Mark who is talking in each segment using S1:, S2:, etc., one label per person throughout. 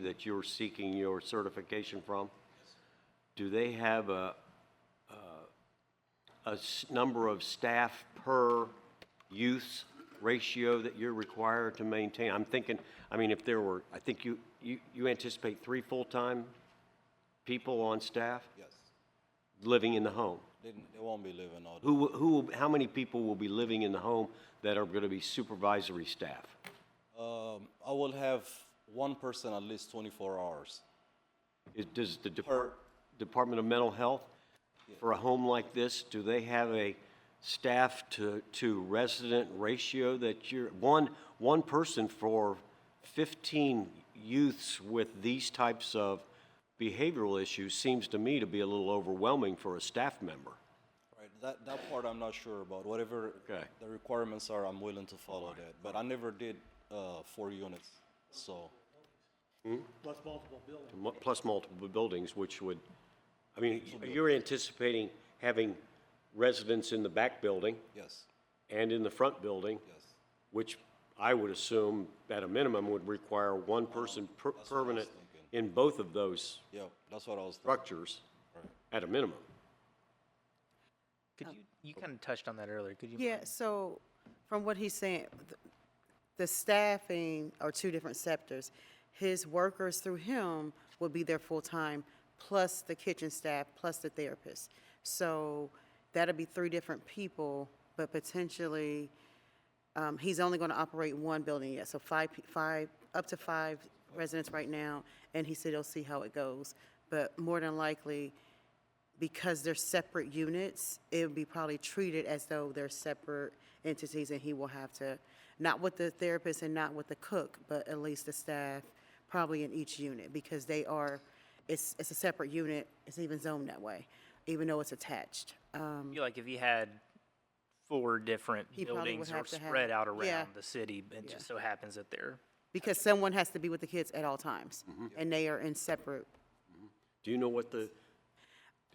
S1: that you're seeking your certification from? Do they have a, a s- number of staff per use ratio that you're required to maintain? I'm thinking, I mean, if there were, I think you, you, you anticipate three full-time people on staff
S2: Yes.
S1: living in the home?
S2: They, they won't be living all the
S1: Who, will- who, will- how many people will be living in the home that are going to be supervisory staff?
S2: Um, I will have one person at least 24 hours.
S1: Is- Does the Depar-
S2: Per-
S1: Department of Mental Health, for a home like this, do they have a staff to, to resident ratio that you're, one, one person for 15 youths with these types of behavioral issues seems to me to be a little overwhelming for a staff member.
S2: Right. That, that part I'm not sure about. Whatever
S1: Okay.
S2: the requirements are, I'm willing to follow that. But I never did uh, four units. So,
S3: Plus multiple buildings.
S1: mu- plus multiple buildings, which would, I mean, you're anticipating having residents in the back building
S2: yes.
S1: and in the front building?
S2: Yes.
S1: which I would assume at a minimum would require one person per- permanent in both of those
S2: Yeah, that's what I was thinking.
S1: structures at a minimum.
S4: Could you, you kind of touched on that earlier. Could you?
S5: Oh. Yeah, so from what he's saying, th- the staffing are two different sectors. His workers through him will be there full-time, plus the kitchen staff, plus the therapist. So that'll be three different people, but potentially, um, he's only gonna operate one building yet, so five, pe- five, up to five residents right now, and he said he'll see how it goes. But more than likely, because they're separate units, it would be probably treated as though they're separate entities and he will have to, not with the therapist and not with the cook, but at least the staff, probably in each unit, because they are, it's, it's a separate unit, it's even zoned that way, even though it's attached. Um,
S4: you- like if you had four different
S5: He probably
S4: buildings
S5: would
S4: or
S5: have to have-
S4: spread out around
S5: yeah.
S4: the city, it just so happens that they're
S5: because someone has to be with the kids at all times,
S1: Mm-hmm.
S5: and they are in separate,
S1: Do you know what the,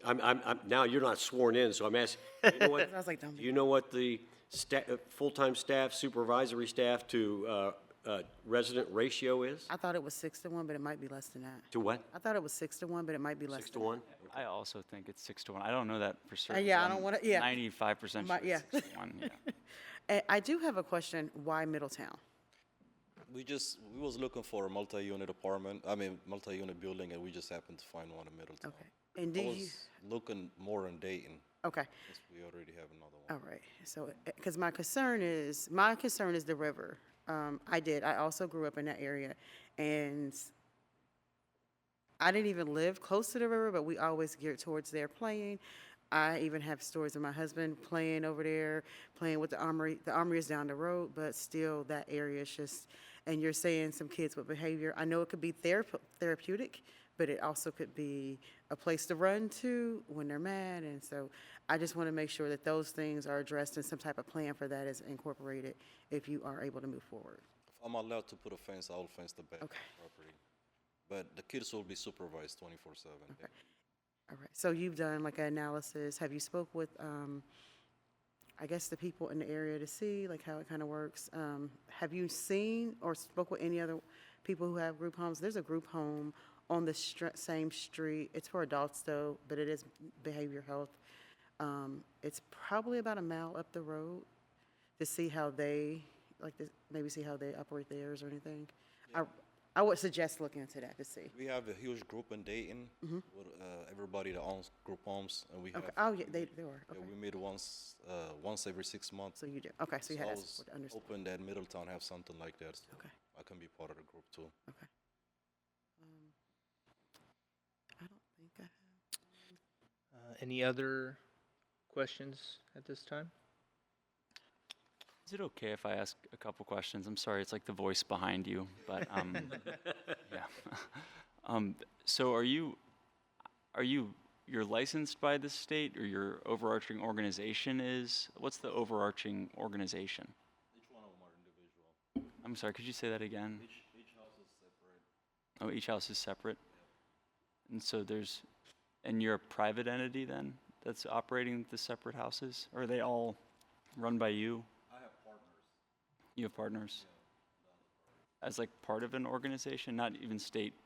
S1: I'm, I'm, I'm, now you're not sworn in, so I'm asking, you know what?
S5: I was like, don't be-
S1: You know what the sta, uh, full-time staff, supervisory staff to, uh, uh, resident ratio is?
S5: I thought it was six to one, but it might be less than that.
S1: To what?
S5: I thought it was six to one, but it might be less than
S1: Six to one?
S6: I also think it's six to one. I don't know that for certain.
S5: Uh, yeah,
S6: but
S5: I don't
S6: I'm
S5: wanna- yeah.
S6: Ninety-five percent
S5: My-
S6: sure it's six to one, yeah.
S5: Uh, I do have a question, why Middletown?
S2: We just, we was looking for a multi-unit apartment, I mean, multi-unit building, and we just happened to find one in Middletown.
S5: Okay, and do
S2: I
S5: you,
S2: was looking more in Dayton,
S5: okay.
S2: since we already have another one.
S5: All right, so, because my concern is, my concern is the river. Um, I did, I also grew up in that area, and I didn't even live close to the river, but we always geared towards there playing. I even have stories of my husband playing over there, playing with the armory. The armory is down the road, but still that area is just, and you're saying some kids with behavior. I know it could be therap- therapeutic, but it also could be a place to run to when they're mad. And so I just want to make sure that those things are addressed and some type of plan for that is incorporated if you are able to move forward.
S2: If I'm allowed to put a fence, I will fence the back of
S5: Okay.
S2: the property. But the kids will be supervised 24/7. yeah.
S5: All right, so you've done like an analysis, have you spoke with, um, I guess the people in the area to see like how it kind of works? Um, have you seen or spoke with any other people who have group homes? There's a group home on the str- same street, it's for adults though, but it is behavior health. Um, it's probably about a mile up the road to see how they, like, to maybe see how they operate theirs or anything. I, I would suggest looking into that to see.
S2: We have a huge group in Dayton with uh, everybody that owns group homes, and we have.
S5: Mm-hmm. Okay, oh, yeah, they, they were,
S2: yeah,
S5: okay.
S2: we meet once, uh, once every six months.
S5: So you do, okay, so you
S2: So
S5: had
S2: I
S5: that
S2: was
S5: support, understood,
S2: hoping that Middletown have something like that. so
S5: Okay.
S2: I can be part of the group too.
S5: okay. Um, I don't think I have,
S4: uh, any other questions at this time?
S6: Is it okay if I ask a couple questions? I'm sorry, it's like the voice behind you, but, um, yeah. Um, so are you, are you, you're licensed by the state or your overarching organization is, what's the overarching organization? Each one of them are individual. I'm sorry, could you say that again? Each, each house is separate. Oh, each house is separate? And so there's, and you're a private entity then that's operating the separate houses? Or are they all run by you? You have partners? As like part of an organization, not even state